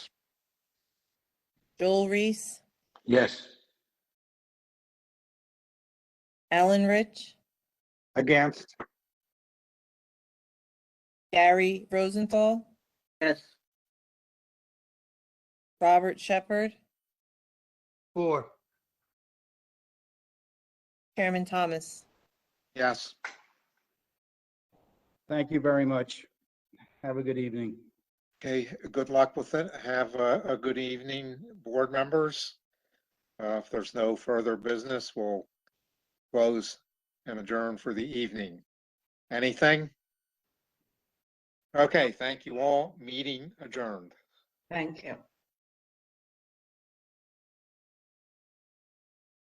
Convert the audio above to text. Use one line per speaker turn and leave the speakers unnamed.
Joel Reese,
Yes.
Alan Rich,
Against?
Gary Rosenthal,
Yes.
Robert Shepherd,
Four.
Chairman Thomas.
Yes.
Thank you very much. Have a good evening.
Okay, good luck with it. Have a, a good evening, board members. Uh, if there's no further business, we'll close and adjourn for the evening. Anything? Okay, thank you all. Meeting adjourned.
Thank you.